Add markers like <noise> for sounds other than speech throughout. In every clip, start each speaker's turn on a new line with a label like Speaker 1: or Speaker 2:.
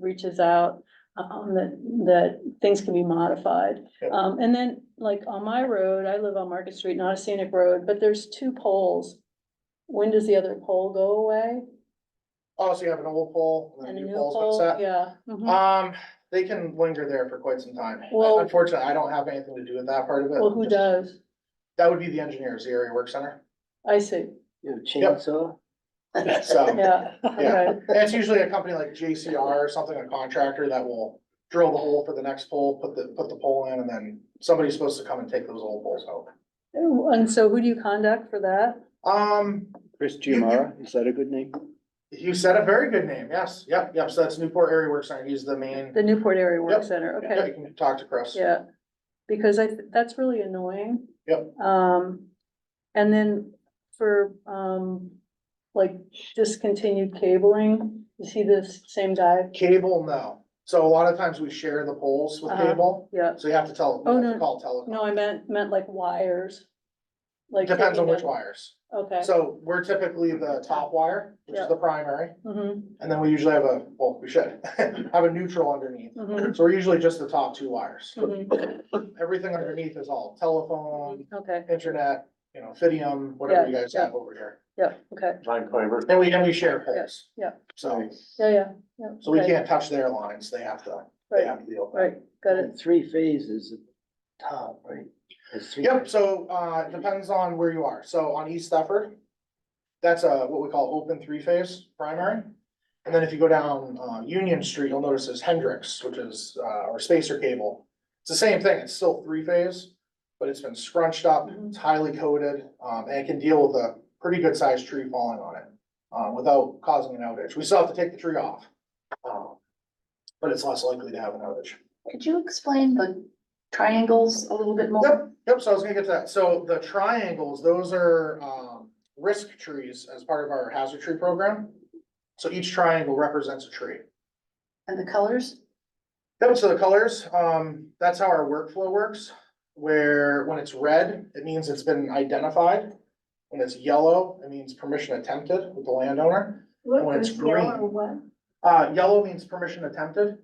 Speaker 1: reaches out, um, that, that things can be modified.
Speaker 2: Yeah.
Speaker 1: Um, and then, like, on my road, I live on Market Street, not a scenic road, but there's two poles. When does the other pole go away?
Speaker 2: Oh, so you have an old pole and
Speaker 1: And
Speaker 2: then
Speaker 1: a
Speaker 2: a new
Speaker 1: new
Speaker 2: pole's
Speaker 1: pole,
Speaker 2: been set?
Speaker 1: yeah. mhm.
Speaker 2: Um, they can linger there for quite some time.
Speaker 1: Well-
Speaker 2: Unfortunately, I don't have anything to do with that part of it.
Speaker 1: Well, who
Speaker 2: Just-
Speaker 1: does?
Speaker 2: That would be the engineers, the area work center.
Speaker 1: <laughs> I see,
Speaker 3: You know, chainsaw?
Speaker 2: So, and <laughs>
Speaker 1: yeah, okay,
Speaker 2: it's usually a company like JCR or something, a contractor that will drill the hole for the next pole, put the, put the pole in, and then somebody's supposed to come and take those old poles out.
Speaker 1: and so who do you contact for that?
Speaker 2: Um,
Speaker 3: Chris Giamara, is that a good name?
Speaker 2: you said a very good name. Yes, yep, yep. So that's Newport Area Work Center. He's the main,
Speaker 1: The Newport Area Work
Speaker 2: Yep.
Speaker 1: Center, okay.
Speaker 2: Yeah, you can talk to Chris.
Speaker 1: Yeah, because I, th- that's really annoying.
Speaker 2: Yep.
Speaker 1: Um, and then for, um, like discontinued cabling, you see this same guy?
Speaker 2: Cable, no. So a lot of times we share the poles with
Speaker 1: Uh-huh.
Speaker 2: cable,
Speaker 1: Yeah,
Speaker 2: so you have to tell, you
Speaker 1: Oh,
Speaker 2: have
Speaker 1: no.
Speaker 2: to call telecom.
Speaker 1: no, I meant, meant like wires. Like
Speaker 2: Depends on
Speaker 1: taking
Speaker 2: which
Speaker 1: them-
Speaker 2: wires.
Speaker 1: Okay.
Speaker 2: So we're typically the top wire, which
Speaker 1: Yeah.
Speaker 2: is the primary,
Speaker 1: Mhm,
Speaker 2: and then we usually have a, well, we should <laughs> have a neutral underneath.
Speaker 1: mhm,
Speaker 2: So we're usually just the top two wires.
Speaker 1: mhm.
Speaker 2: Everything underneath is all telephone,
Speaker 1: Okay,
Speaker 2: internet, you know, Fidium, whatever you
Speaker 1: Yeah,
Speaker 2: guys have over here.
Speaker 1: yeah, okay,
Speaker 4: Line fiber.
Speaker 2: And we, and we share poles.
Speaker 1: yeah.
Speaker 2: So,
Speaker 1: yeah, yeah, yeah.
Speaker 2: so we
Speaker 1: okay,
Speaker 2: can't touch their lines. They have to, they
Speaker 1: Right,
Speaker 2: have to deal with that.
Speaker 1: right, got it,
Speaker 3: Three phases at the top, right? There's three-
Speaker 2: Yep, so, uh, depends on where you are. So on East Stafford, that's a, what we call open three-phase primary. And then if you go down, uh, Union Street, you'll notice is Hendrix, which is, uh, our spacer cable. It's the same thing, it's still three-phase, but it's been scrunched up,
Speaker 1: Mhm.
Speaker 2: it's highly coated, um, and it can deal with a pretty good-sized tree falling on it, uh, without causing an outage. We still have to take the tree off. um, But it's less likely to have an outage.
Speaker 5: Could you explain the triangles a little bit more?
Speaker 2: Yep, yep, so I was gonna get to that. So the triangles, those are, um, risk trees as part of our hazard tree program. So each triangle represents a tree.
Speaker 5: And the colors?
Speaker 2: Yep, so the colors, um, that's how our workflow works, where when it's red, it means it's been identified. When it's yellow, it means permission attempted with the landowner.
Speaker 5: What
Speaker 2: When it's was yellow green. or
Speaker 5: what?
Speaker 2: Uh, yellow means permission attempted,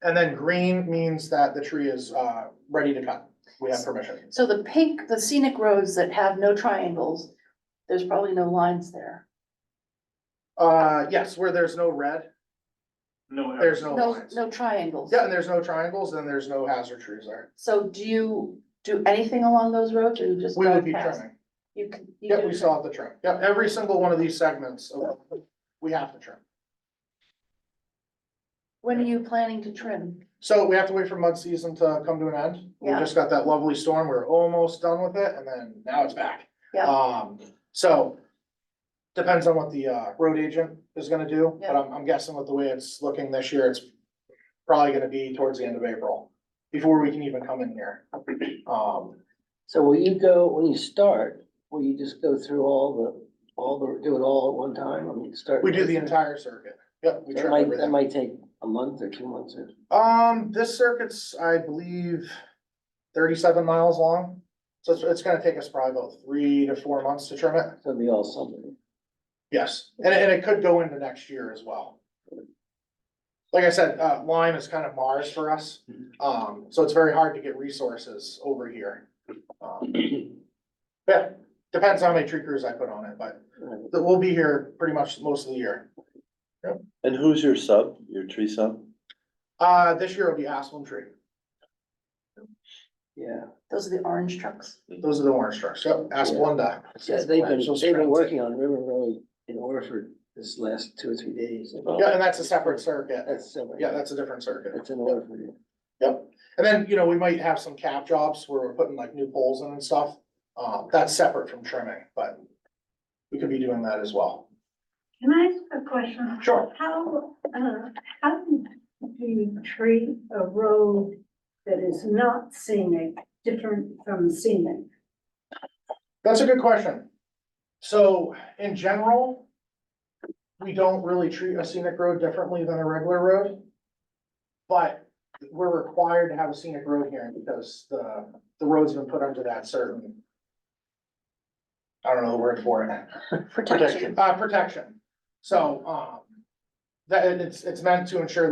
Speaker 2: and then green means that the tree is, uh, ready to cut. We have permission.
Speaker 5: So the pink, the scenic roads that have no triangles, there's probably no lines there.
Speaker 2: Uh, yes, where there's no red,
Speaker 4: No.
Speaker 2: there's no
Speaker 5: No,
Speaker 2: lines.
Speaker 5: no triangles.
Speaker 2: Yeah, and there's no triangles, and there's no hazard trees there.
Speaker 5: So do you do anything along those roads or you just?
Speaker 2: We would
Speaker 5: drive
Speaker 2: be
Speaker 5: past?
Speaker 2: trimming.
Speaker 5: You can. you
Speaker 2: Yep,
Speaker 5: do
Speaker 2: we
Speaker 5: trim.
Speaker 2: still have to trim. Yep, every single one of these segments, of- we have to trim.
Speaker 5: When are you planning to trim?
Speaker 2: So we have to wait for mud season to come to an end. We
Speaker 5: Yeah.
Speaker 2: just got that lovely storm. We We're almost done with it, and then now it's back.
Speaker 5: Yeah.
Speaker 2: Um, so depends on what the, uh, road agent is gonna do, but
Speaker 5: Yeah.
Speaker 2: I'm, I'm guessing with the way it's looking this year, it's probably gonna be towards the end of April, before we can even come in here. Um,
Speaker 3: So will you go, when you start, will you just go through all the, all the, do it all at one time? I mean, start.
Speaker 2: we do the entire circuit. Yep, we
Speaker 3: That
Speaker 2: trim
Speaker 3: might,
Speaker 2: everything.
Speaker 3: that might take a month or two months or.
Speaker 2: Um, this circuit's, I believe, thirty-seven miles long, so it's, it's gonna take us probably about three to four months to trim it.
Speaker 3: It'll be all summer.
Speaker 2: Yes, and, and it could go into next year as well. Like I said, uh, Lyme is kind of Mars for us, um, so it's very hard to get resources over here. Um, Yeah, depends how many tree crews I put on it, but
Speaker 3: Right.
Speaker 2: we'll be here pretty much most of the year.
Speaker 4: And who's your sub, your tree sub?
Speaker 2: Uh, this year will be aspen tree,
Speaker 3: Yeah,
Speaker 5: Those are the orange trucks.
Speaker 2: those are the orange trucks, yep, Asplunda.
Speaker 3: Yeah, they've been,
Speaker 2: Those
Speaker 3: they've been
Speaker 2: strands.
Speaker 3: working on River Road in Orford this last two or three days.
Speaker 2: Yeah, and that's a separate circuit.
Speaker 3: That's similar.
Speaker 2: Yeah, that's a different circuit.
Speaker 3: That's in Orford.
Speaker 2: Yep. And then, you know, we might have some cap jobs where we're putting like new poles in and stuff. Um, that's separate from trimming, but we could be doing that as well.
Speaker 6: Can I ask a question?
Speaker 2: Sure.
Speaker 6: How, uh, how do you treat a road that is not scenic, different from scenic?
Speaker 2: That's a good question. So in general, we don't really treat a scenic road differently than a regular road. But we're required to have a scenic road here because the, the road's been put under that certain, I don't know the word for it.
Speaker 5: Protection.
Speaker 2: Uh, protection. So, um, That, and it's, it's meant to ensure